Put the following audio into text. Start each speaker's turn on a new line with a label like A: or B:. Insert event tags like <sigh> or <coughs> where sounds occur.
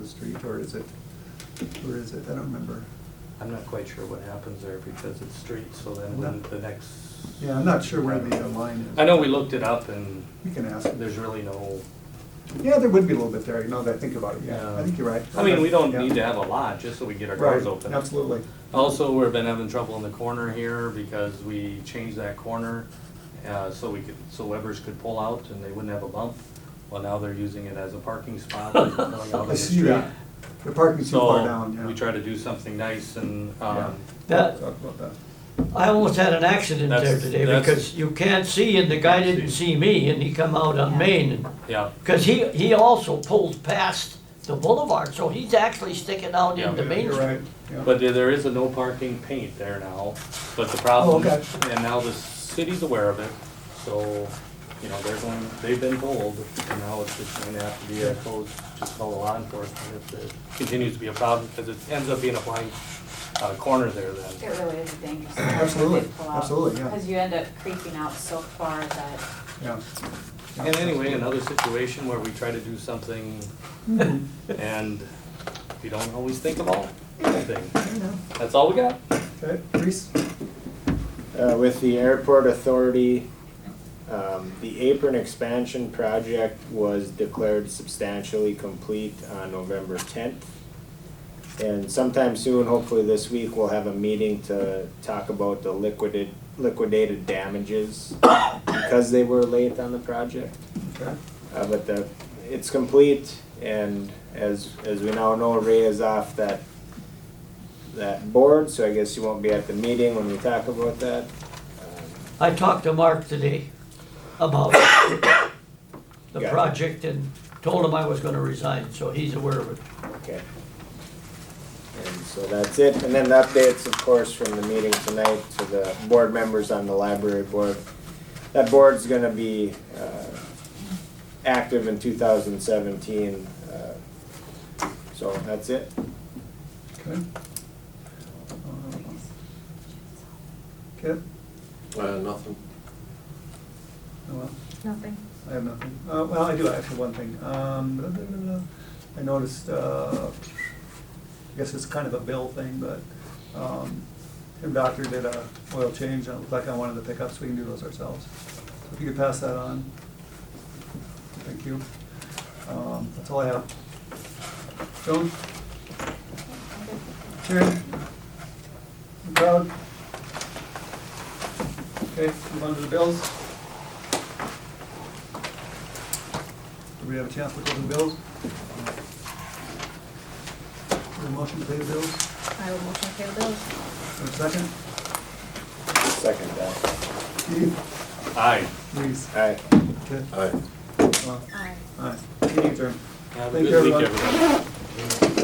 A: street, or is it, or is it, I don't remember.
B: I'm not quite sure what happens there because it's street, so then
A: No.
B: when the next.
A: Yeah, I'm not sure where the uh, line is.
B: I know we looked it up and
A: We can ask.
B: there's really no,
A: Yeah, there would be a little bit there, now that I think about it, yeah, I think you're right.
B: uh, I mean, we don't
A: Yeah.
B: need to have a lot, just so we get our doors
A: Right,
B: open.
A: absolutely.
B: Also, we've been having trouble in the corner here because we changed that corner, uh, so we could, so Weber's could pull out and they wouldn't have a bump. Well, now they're using it as a parking
A: <laughs>
B: spot. and going out on
A: I
B: the
A: see
B: street.
A: that. The parking's too far down,
B: So, we
A: yeah.
B: try to do something nice and,
A: Yeah.
B: um,
A: Talk
C: That-
A: about that.
C: I almost had an accident there
B: That's-
C: today
B: that's-
C: because you can't see and the guy didn't see me and he come out on Main and,
B: yeah,
C: because he, he also pulled past the boulevard, so he's actually sticking out
B: Yeah.
C: into
B: Yeah,
C: Main
A: You're
C: Street.
A: right, yeah.
B: But there- there is a no parking paint there now, but the problem,
A: Oh, okay.
B: and now the city's aware of it, so, you know, they're going, they've been told, and now it's just going to have to be a code, just call law enforcement if it continues to be a problem, because it ends up being a blind uh, corner there
D: It
B: then.
D: really is a dangerous.
A: Absolutely, absolutely, yeah.
D: Because you end up creeping out so far that,
A: Yeah.
B: And anyway, another situation where we try to do something,
C: Mm-hmm.
B: and we don't always think of all things.
A: Yeah,
B: That's all we got.
A: Okay, Reese?
E: Uh, with the airport authority, um, the apron expansion project was declared substantially complete on November tenth. And sometime soon, hopefully this week, we'll have a meeting to talk about the liquidated, liquidated damages because they were late on the project.
A: Okay.
E: Uh, but the, it's complete, and as, as we now know, Ray is off that, that board, so I guess you won't be at the meeting when we talk about that. Um,
C: I talked to Mark today
B: <coughs>
C: about the
E: Gotcha.
C: project and told him I was gonna resign, so he's aware of it.
E: Okay. And so that's it, and then the updates, of course, from the meeting tonight to the board members on the library board. That board's gonna be, uh, active in two thousand seventeen, uh, so that's it.
A: Okay. Um, Kit?
F: Uh, nothing.
A: Oh, well.
D: nothing.
A: I have nothing. Uh, well, I do actually one thing. Um, blah, blah, blah, blah. I noticed, uh, I guess it's kind of a bill thing, but, um, Tim Doctor did a oil change, and it looked like on one of the pickups, we can do those ourselves. So If you could pass that on. Thank you. Um, that's all I have. Joan? Sharon? You Proud? Okay, move on to the bills. Do we have a chance to go to the bills? Is there a motion to pay the bills?
D: I will motion to pay the bills.
A: Is there a second?
E: Second that.
A: Keith?
B: Aye.
A: Please.
E: Aye.
A: Okay.
F: Aye.
A: Well,
D: Aye.
A: All right, uh, meeting adjourned.
B: Have a
A: Thank you,
B: good week,
A: everyone.
B: everybody.